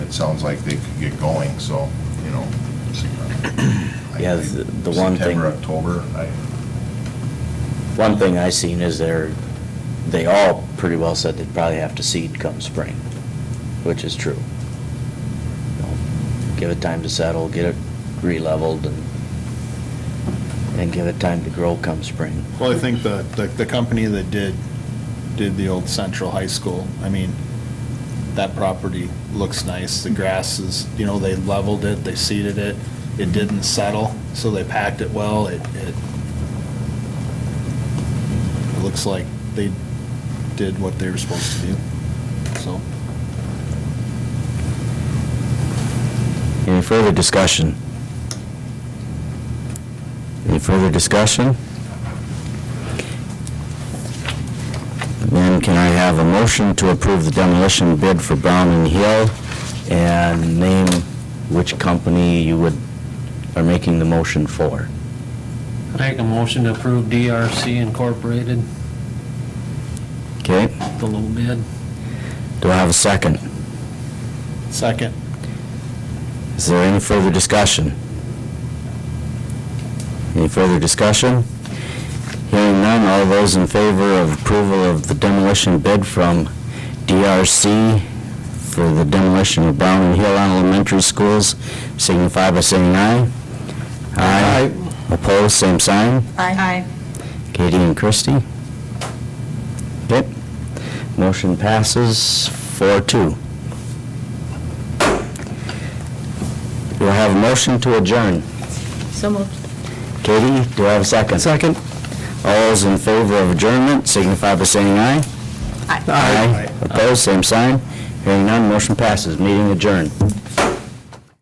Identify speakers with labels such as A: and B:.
A: it sounds like they could get going, so, you know. I
B: Yeah,
A: think
B: the- the one thing-
A: September, October, I,
B: One thing I seen is they're, they all pretty well said they'd probably have to seed come spring, which is true. You know, Give it time to settle, get it re-leveled and, and give it time to grow come spring.
C: Well, I think the, the, the company that did, did the old Central High School, I mean, that property looks nice, the grass is, you know, they leveled it, they seeded it, it didn't settle, so they packed it well, it, it, it looks like they did what they were supposed to do, so.
B: Any further discussion? Any further discussion? Then can I have a motion to approve the demolition bid for Brown and Hill and name which company you would, are making the motion for?
D: Make a motion to approve DRC Incorporated,
B: Okay,
D: the low bid.
B: do I have a second?
C: Second.
B: Is there any further discussion? Any further discussion? Hearing none, all those in favor of approval of the demolition bid from DRC for the demolition of Brown and Hill Elementary Schools signify by saying aye. Aye. Opposed, same sign.
E: Aye.
B: Katie and Christie? Yep. Motion passes four two. Do I have a motion to adjourn?
E: So moved.
B: Katie, do I have a second? Second. All those in favor of adjournment signify by saying aye.
E: Aye.
B: Aye. Opposed, same sign. Hearing none, motion passes. Meeting adjourned.